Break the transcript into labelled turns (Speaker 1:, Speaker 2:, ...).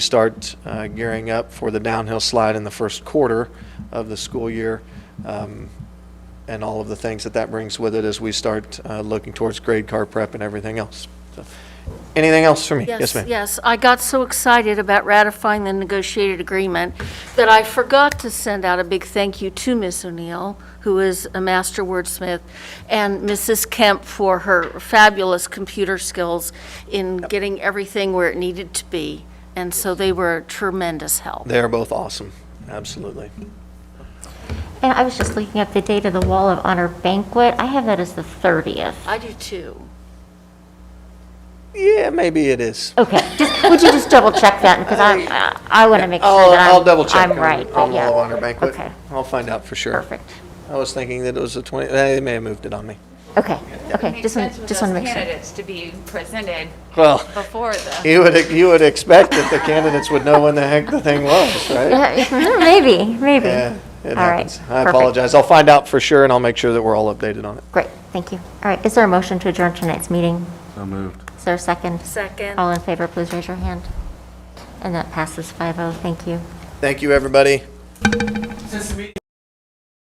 Speaker 1: start uh, gearing up for the downhill slide in the first quarter of the school year, um, and all of the things that that brings with it as we start uh, looking towards grade car prep and everything else. So, Anything else for me? Yes, ma'am.
Speaker 2: Yes, I got so excited about ratifying the negotiated agreement that I forgot to send out a big thank you to Miss O'Neill, who is a master wordsmith, and Mrs. Kemp for her fabulous computer skills in getting everything where it needed to be. And so they were a tremendous help.
Speaker 1: They are both awesome, absolutely.
Speaker 3: And I was just looking up the date of the Wall of Honor banquet. I have that as the 30th.
Speaker 2: I do too.
Speaker 1: Yeah, maybe it is.
Speaker 3: Okay, just, would you just double check that? Because I, I want to make sure
Speaker 1: I'll,
Speaker 3: that I'm.
Speaker 1: I'll double check
Speaker 3: I'm right,
Speaker 1: on,
Speaker 3: but
Speaker 1: on the
Speaker 3: yeah.
Speaker 1: Law Honor Banquet.
Speaker 3: Okay,
Speaker 1: I'll find out for sure.
Speaker 3: perfect.
Speaker 1: I was thinking that it was the 20, they may have moved it on me.
Speaker 3: Okay, okay,
Speaker 4: Makes
Speaker 3: just want,
Speaker 4: sense with
Speaker 3: just
Speaker 4: those
Speaker 3: want to make sure.
Speaker 4: candidates to be presented
Speaker 1: Well,
Speaker 4: before the,
Speaker 1: you would, you would expect that the candidates would know when the heck the thing was, right?
Speaker 3: Maybe, maybe.
Speaker 1: Yeah, it
Speaker 3: All right,
Speaker 1: happens. I
Speaker 3: perfect.
Speaker 1: apologize. I'll find out for sure, and I'll make sure that we're all updated on it.
Speaker 3: Great, thank you. All right, is there a motion to adjourn tonight's meeting?
Speaker 5: So moved.
Speaker 3: Is there a second?
Speaker 2: Second.
Speaker 3: All in favor, please raise your hand. And that passes 5-0, oh. thank you.
Speaker 1: Thank you, everybody.